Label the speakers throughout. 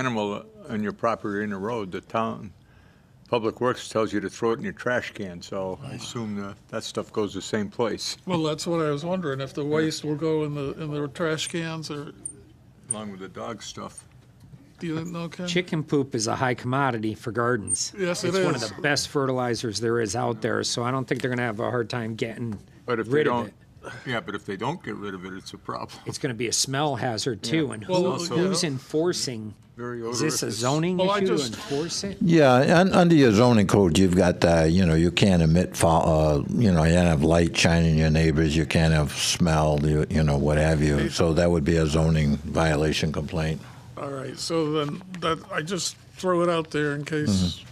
Speaker 1: animal on your property or in the road, the town, Public Works tells you to throw it in your trash can, so I assume that, that stuff goes the same place,
Speaker 2: Well, that's what I was wondering, if the waste will go in the, in the trash cans or,
Speaker 1: along with the dog stuff.
Speaker 2: do you know, Ken?
Speaker 3: Chicken poop is a high commodity for gardens.
Speaker 2: Yes, it
Speaker 3: It's one of
Speaker 2: is.
Speaker 3: the best fertilizers there is out there, so I don't think they're going to have a hard time getting
Speaker 1: But if they
Speaker 3: rid of
Speaker 1: don't,
Speaker 3: it.
Speaker 1: yeah, but if they don't get rid of it, it's a problem.
Speaker 3: It's going to be a smell hazard too, and
Speaker 2: Well,
Speaker 3: who-
Speaker 1: also-
Speaker 3: who's enforcing?
Speaker 1: Very
Speaker 3: Is this a
Speaker 1: odorous.
Speaker 3: zoning
Speaker 2: Well, I
Speaker 3: issue to
Speaker 2: just-
Speaker 3: enforce it?
Speaker 4: Yeah, un under your zoning code, you've got uh, you know you can't emit fo- uh, you know you can't have light shining in your neighbors, you can't have smell, you, you know what have you. So that would be a zoning violation complaint.
Speaker 2: All right, so then, that, I just throw it out there in case,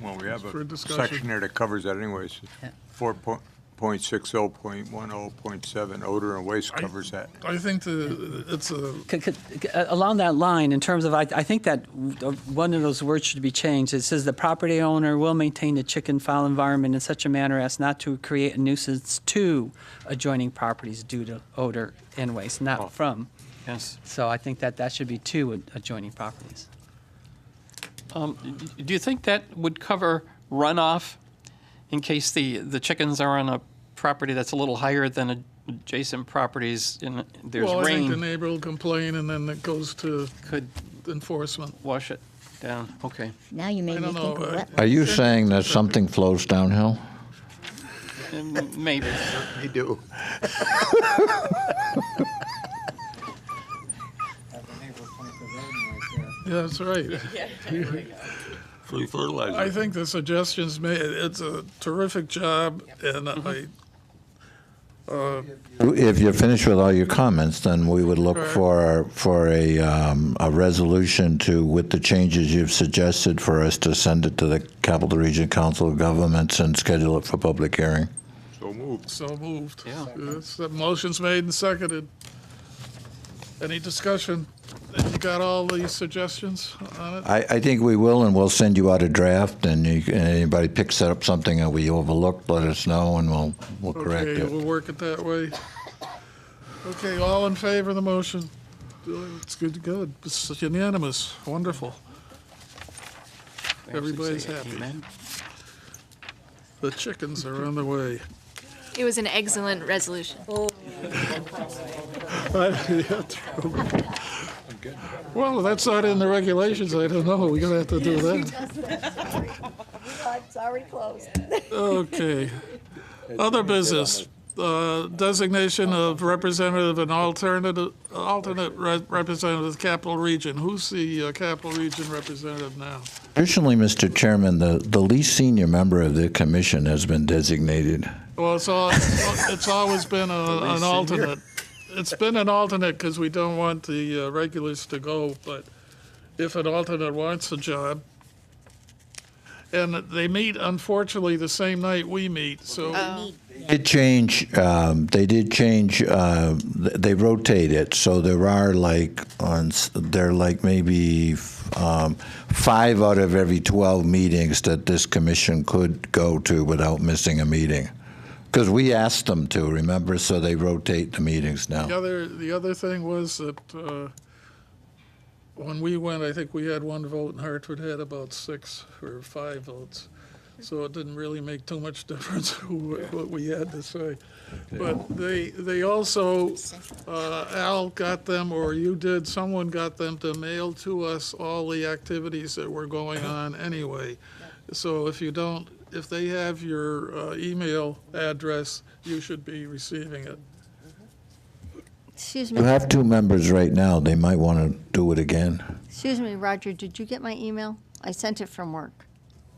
Speaker 1: Well, we have
Speaker 2: For
Speaker 1: a
Speaker 2: discussion.
Speaker 1: section there that covers that anyways. Four point six oh point one oh point seven, odor and waste
Speaker 2: I-
Speaker 1: covers that.
Speaker 2: I think the, it's a,
Speaker 5: C- c- uh, Along that line, in terms of, I, I think that w- uh, one of those words should be changed. It says the property owner will maintain the chicken fowl environment in such a manner as not to create a nuisance to adjoining properties due to odor and waste, not from.
Speaker 6: Yes.
Speaker 5: So I think that that should be to ad- adjoining properties.
Speaker 6: Um, d- do you think that would cover runoff in case the, the chickens are on a property that's a little higher than adjacent properties and there's
Speaker 2: well, I think the
Speaker 6: rain?
Speaker 2: neighbor will complain and then it goes to
Speaker 6: Could
Speaker 2: enforcement.
Speaker 6: wash it down. Okay.
Speaker 7: Now you made
Speaker 2: I
Speaker 7: me
Speaker 2: don't
Speaker 7: think
Speaker 2: know,
Speaker 7: of
Speaker 2: uh,
Speaker 7: what?
Speaker 4: Are you saying that something flows downhill?
Speaker 6: Um, Maybe.
Speaker 1: They do.
Speaker 2: Yeah, that's right.
Speaker 1: Free fertilizer.
Speaker 2: I think the suggestions made, it's a terrific job and I,
Speaker 4: If you're finished with all your comments, then we would look for for a um, a resolution to with the changes you've suggested for us to send it to the Capital Region Council of Governments and schedule it for public hearing.
Speaker 1: So moved.
Speaker 2: so moved.
Speaker 6: Yeah.
Speaker 2: It's- The motion's made and seconded. Any discussion? You got all the suggestions on it?
Speaker 4: I, I think we will, and we'll send you out a draft, and you, and anybody picks up something that we overlooked, let us know, and we'll, we'll correct
Speaker 2: Okay,
Speaker 4: it.
Speaker 2: we'll work it that way. Okay, all in favor of the motion? It's good to go. It's unanimous. Wonderful. Everybody's happy.
Speaker 6: Amen.
Speaker 2: The chickens are on the way.
Speaker 8: It was an excellent resolution.
Speaker 2: Well, that's not in the regulations. I don't know. We're gonna have to do that.
Speaker 7: It's already closed.
Speaker 2: Okay. Other business, uh, designation of representative and alternative, alternate re- representative of the Capital Region. Who's the uh, Capital Region representative now?
Speaker 4: Additionally, Mr. Chairman, the, the least senior member of the commission has been designated.
Speaker 2: Well, it's all, it's always been a, an alternate. It's been an alternate because we don't want the uh, regulars to go, but if an alternate wants a job, and they meet unfortunately the same night we meet, so,
Speaker 4: Did change, um, they did change, uh, th- they rotate it, so there are like, on, s- there are like maybe, f- um, five out of every twelve meetings that this commission could go to without missing a meeting. Because we asked them to, remember, so they rotate the meetings now.
Speaker 2: the other, the other thing was that, uh, when we went, I think we had one vote and Hartford had about six or five votes. So it didn't really make too much difference who, what we had to say. But they, they also, uh, Al got them, or you did, someone got them to mail to us all the activities that were going on anyway. So if you don't, if they have your uh, email address, you should be receiving it.
Speaker 7: Excuse
Speaker 4: You
Speaker 7: me,
Speaker 4: have two members right now. They might want to do it again.
Speaker 7: excuse me, Roger, did you get my email? I sent it from work,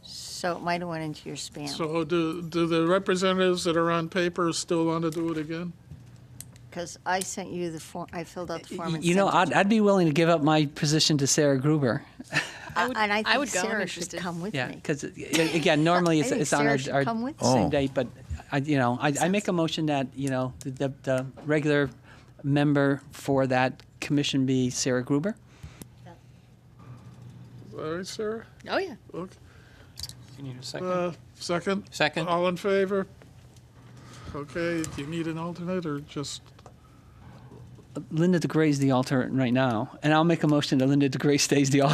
Speaker 7: so it might have went into your spam,
Speaker 2: So do, do the representatives that are on paper still want to do it again?
Speaker 7: because I sent you the form, I filled out the form
Speaker 5: Y-
Speaker 7: and
Speaker 5: You know,
Speaker 7: sent
Speaker 5: I'd, I'd be willing to give up my position to Sarah Gruber.
Speaker 7: it. I- And I
Speaker 8: I
Speaker 7: think
Speaker 8: would go, I'm
Speaker 7: Sarah should
Speaker 8: interested.
Speaker 7: come with
Speaker 5: Yeah,
Speaker 7: me.
Speaker 5: because, again, normally it's,
Speaker 7: I think
Speaker 5: it's on our,
Speaker 7: Sarah should
Speaker 5: our
Speaker 7: come with us.
Speaker 4: Oh.
Speaker 5: same date, but, I, you know, I, I make a motion that, you know, the, the, the regular member for that commission be Sarah Gruber.
Speaker 2: All right, Sarah?
Speaker 8: Oh, yeah.
Speaker 2: Okay.
Speaker 6: You need a second?
Speaker 2: Uh, Second?
Speaker 6: Second?
Speaker 2: All in favor? Okay, do you need an alternate or just,
Speaker 5: Linda DeGray's the alternate right now, and I'll make a motion that Linda DeGray stays the alternate.